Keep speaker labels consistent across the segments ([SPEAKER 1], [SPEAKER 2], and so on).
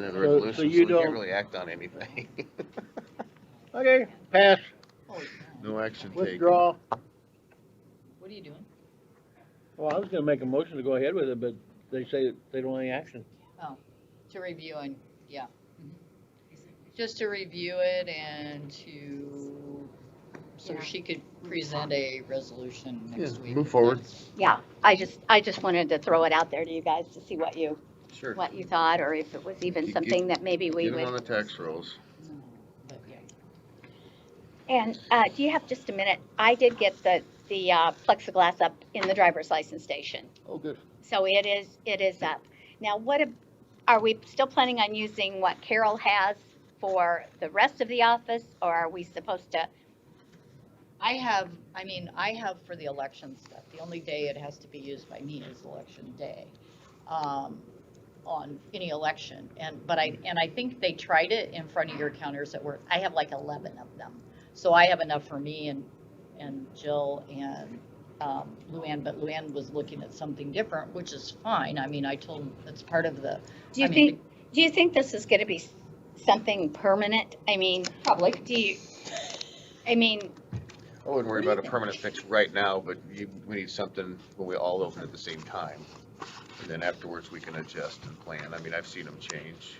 [SPEAKER 1] Then the
[SPEAKER 2] So-
[SPEAKER 1] resolution, so
[SPEAKER 2] so you
[SPEAKER 1] we can't
[SPEAKER 2] don't-
[SPEAKER 1] really act on anything.
[SPEAKER 2] Okay, pass,
[SPEAKER 1] No action taken.
[SPEAKER 2] withdraw.
[SPEAKER 3] What are you doing?
[SPEAKER 2] Well, I was gonna make a motion to go ahead with it, but they say that they don't want any action.
[SPEAKER 3] To review and, yeah. Just to review it and to, so
[SPEAKER 4] Yeah.
[SPEAKER 3] she could present a resolution next
[SPEAKER 1] Yeah,
[SPEAKER 3] week.
[SPEAKER 1] move forward.
[SPEAKER 4] Yeah, I just, I just wanted to throw it out there to you guys to see what you,
[SPEAKER 1] Sure.
[SPEAKER 4] what you thought, or if it was even
[SPEAKER 1] Get-
[SPEAKER 4] something that maybe we
[SPEAKER 1] Get them
[SPEAKER 4] would.
[SPEAKER 1] on the tax rolls.
[SPEAKER 3] But, yeah.
[SPEAKER 4] And uh, do you have just a minute? I did get the, the uh, plexiglass up in the driver's license station.
[SPEAKER 2] Oh, good.
[SPEAKER 4] So it is, it is up. Now, what, ab- are we still planning on using what Carol has for the rest of the office? Or are we supposed to,
[SPEAKER 3] I have, I mean, I have for the election stuff, the only day it has to be used by me is election day. Um, on any election, and, but I, and I think they tried it in front of your counters at work, I have like eleven of them. So I have enough for me and, and Jill and, um, Luann, but Luann was looking at something different, which is fine, I mean, I told them, it's part of the.
[SPEAKER 4] do you
[SPEAKER 3] I mean,
[SPEAKER 4] think, do you think this is gonna be s- something permanent? I mean,
[SPEAKER 3] Probably.
[SPEAKER 4] do you, I mean,
[SPEAKER 1] I wouldn't worry
[SPEAKER 3] What do you
[SPEAKER 1] about a
[SPEAKER 3] think?
[SPEAKER 1] permanent fix right now, but you, we need something when we all open at the same time. And then afterwards, we can adjust and plan. I mean, I've seen them change.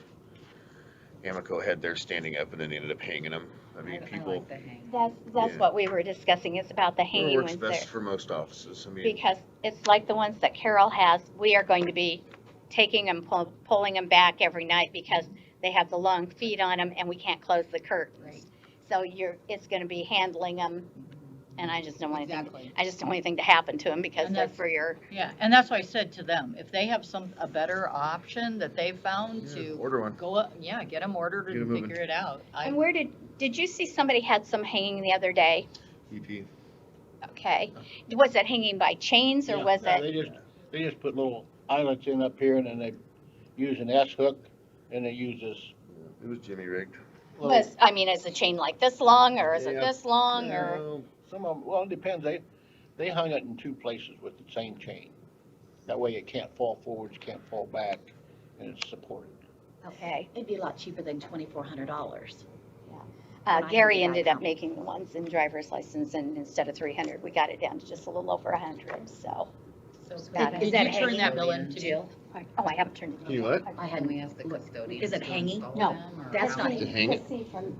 [SPEAKER 1] Amoco had their standing up and then they ended up hanging them. I mean, people,
[SPEAKER 4] that's, that's
[SPEAKER 1] Yeah.
[SPEAKER 4] what we were discussing, is about the
[SPEAKER 1] it
[SPEAKER 4] hanging
[SPEAKER 1] works
[SPEAKER 4] ones there.
[SPEAKER 1] best for most offices. I mean,
[SPEAKER 4] because it's like the ones that Carol has, we are going to be taking them, pull- pulling them back every night because they have the long feet on them and we can't close the
[SPEAKER 3] Right.
[SPEAKER 4] curtains. So you're, it's gonna be handling them, and I just don't want anything,
[SPEAKER 3] Exactly.
[SPEAKER 4] I just don't want anything to happen to them because
[SPEAKER 3] And
[SPEAKER 4] they're
[SPEAKER 3] that's-
[SPEAKER 4] for your,
[SPEAKER 3] Yeah, and that's why I said to them, if they have some, a better option that they found
[SPEAKER 1] yeah,
[SPEAKER 3] to
[SPEAKER 1] order one.
[SPEAKER 3] go up, yeah, get them ordered
[SPEAKER 1] Get 'em
[SPEAKER 3] and
[SPEAKER 1] moving.
[SPEAKER 3] figure it out. I,
[SPEAKER 4] and where did, did you see somebody had some hanging the other day?
[SPEAKER 1] EP.
[SPEAKER 4] Okay, was it hanging by chains or was
[SPEAKER 2] They
[SPEAKER 4] it,
[SPEAKER 2] just, they just put little eyelets in up here and then they use an S hook and they use this.
[SPEAKER 1] It was Jimmy rigged.
[SPEAKER 2] little-
[SPEAKER 4] was, I mean, is the chain like this long or is it
[SPEAKER 1] Yeah.
[SPEAKER 4] this long or?
[SPEAKER 2] No, Some of them, well, it depends, they, they hung it in two places with the same chain. That way it can't fall forwards, can't fall back, and it's supported.
[SPEAKER 4] Okay,
[SPEAKER 5] It'd be a lot cheaper than twenty-four hundred dollars.
[SPEAKER 4] Uh,
[SPEAKER 5] Mine would
[SPEAKER 4] Gary
[SPEAKER 5] be
[SPEAKER 4] ended up
[SPEAKER 5] iPhone.
[SPEAKER 4] making the ones in driver's license and instead of three hundred, we got it down to just a little over a hundred, so.
[SPEAKER 3] so
[SPEAKER 4] Got
[SPEAKER 3] did-
[SPEAKER 4] it. Is
[SPEAKER 3] Did
[SPEAKER 4] that
[SPEAKER 3] you turn that
[SPEAKER 4] hanging?
[SPEAKER 3] bill in to Jill?
[SPEAKER 4] I- Oh, I haven't turned it.
[SPEAKER 1] You what?
[SPEAKER 5] I hadn't,
[SPEAKER 3] asked
[SPEAKER 5] the custodian Is it to hanging? install No, them or that's how not-
[SPEAKER 1] To hang it?
[SPEAKER 4] See from,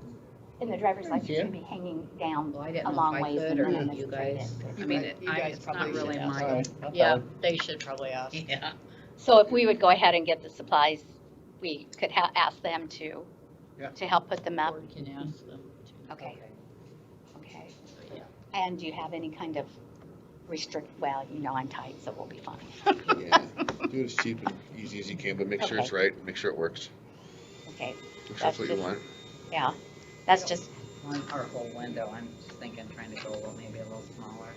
[SPEAKER 4] in the driver's license,
[SPEAKER 2] Yeah.
[SPEAKER 4] it'd be hanging down
[SPEAKER 5] well, I
[SPEAKER 4] a
[SPEAKER 5] didn't know
[SPEAKER 4] long
[SPEAKER 5] if I
[SPEAKER 4] ways.
[SPEAKER 5] could
[SPEAKER 4] and
[SPEAKER 5] or
[SPEAKER 4] then
[SPEAKER 5] if you
[SPEAKER 4] it's turned
[SPEAKER 5] guys.
[SPEAKER 4] in.
[SPEAKER 5] I
[SPEAKER 3] You
[SPEAKER 5] mean,
[SPEAKER 3] guys-
[SPEAKER 5] it-
[SPEAKER 3] you
[SPEAKER 5] I,
[SPEAKER 3] guys
[SPEAKER 5] it's not
[SPEAKER 3] probably
[SPEAKER 5] really
[SPEAKER 3] should ask.
[SPEAKER 5] my,
[SPEAKER 1] Oh.
[SPEAKER 2] Alright,
[SPEAKER 3] Yeah, they should probably ask.
[SPEAKER 5] yeah.
[SPEAKER 4] So if we would go ahead and get the supplies, we could ha- ask them to,
[SPEAKER 2] Yeah.
[SPEAKER 4] to help put them up,
[SPEAKER 3] Or can ask them to.
[SPEAKER 4] Okay. okay?
[SPEAKER 3] Yeah.
[SPEAKER 4] And do you have any kind of restrict, well, you know, I'm tight, so we'll be fine.
[SPEAKER 1] Yeah. Do it as cheap and easy as you can, but make sure it's right, make sure it works.
[SPEAKER 4] Okay,
[SPEAKER 1] Make sure it's what you
[SPEAKER 4] That's just-
[SPEAKER 1] want.
[SPEAKER 4] yeah, that's just,
[SPEAKER 5] One, our whole window, I'm just thinking, trying to go a little, maybe a little smaller.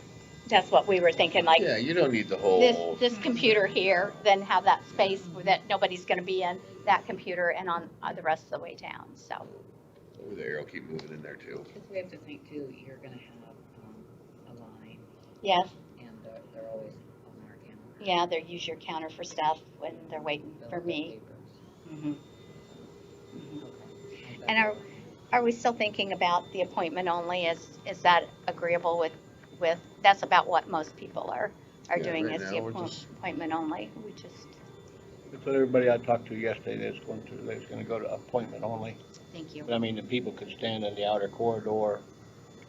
[SPEAKER 4] that's what we were thinking, like,
[SPEAKER 1] Yeah, you don't need the whole.
[SPEAKER 4] this, this computer here, then have that space that nobody's gonna be in, that computer and on, uh, the rest of the way down, so.
[SPEAKER 1] Over there, I'll keep moving in there too.
[SPEAKER 5] Because we have to think too, you're gonna have, um, a line,
[SPEAKER 4] Yes,
[SPEAKER 5] and they're, they're always on our camera.
[SPEAKER 4] yeah, they use your counter for stuff when they're waiting
[SPEAKER 5] They'll
[SPEAKER 4] for
[SPEAKER 5] get
[SPEAKER 4] me.
[SPEAKER 5] papers.
[SPEAKER 4] Mhm.
[SPEAKER 5] Okay.
[SPEAKER 4] And our- Are we still thinking about the appointment only? Is, is that agreeable with, with, that's about what most people are, are
[SPEAKER 1] Yeah,
[SPEAKER 4] doing
[SPEAKER 1] right
[SPEAKER 4] is the
[SPEAKER 1] now, we're
[SPEAKER 4] appoint-
[SPEAKER 1] just-
[SPEAKER 4] appointment only, we just,
[SPEAKER 2] That's what everybody I talked to yesterday, that's going to, that's gonna go to appointment only.
[SPEAKER 4] thank you.
[SPEAKER 2] But I mean, the people could stand in the outer corridor,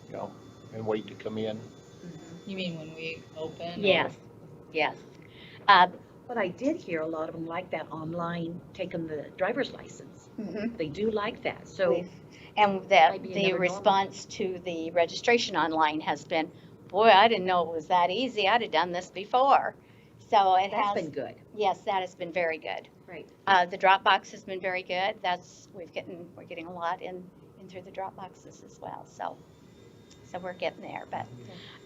[SPEAKER 2] you know, and wait to come in.
[SPEAKER 3] You mean when we open? or-
[SPEAKER 4] Yes, yes. Uh,
[SPEAKER 5] But I did hear a lot of them like that online, taking the driver's license.
[SPEAKER 4] mhm.
[SPEAKER 5] They do like that, so.
[SPEAKER 4] We've- And the,
[SPEAKER 5] Might be
[SPEAKER 4] the
[SPEAKER 5] another normal.
[SPEAKER 4] response to the registration online has been, boy, I didn't know it was that easy. I'd have done this before. So it
[SPEAKER 5] That's
[SPEAKER 4] has,
[SPEAKER 5] been good.
[SPEAKER 4] yes, that has been very good.
[SPEAKER 5] Right.
[SPEAKER 4] Uh, the Dropbox has been very good. That's, we've gotten, we're getting a lot in, in through the Dropboxes as well, so. So we're getting there, but,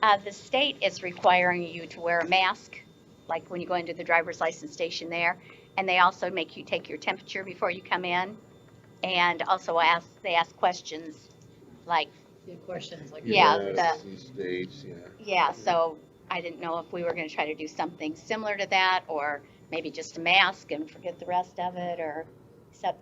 [SPEAKER 4] uh, the state is requiring you to wear a mask, like when you go into the driver's license station there. And they also make you take your temperature before you come in. And also ask, they ask questions like,
[SPEAKER 3] Yeah, Questions like.
[SPEAKER 4] Yeah,
[SPEAKER 1] These days, yeah.
[SPEAKER 4] yeah, so I didn't know if we were gonna try to do something similar to that, or maybe just a mask and forget the rest of it, or, except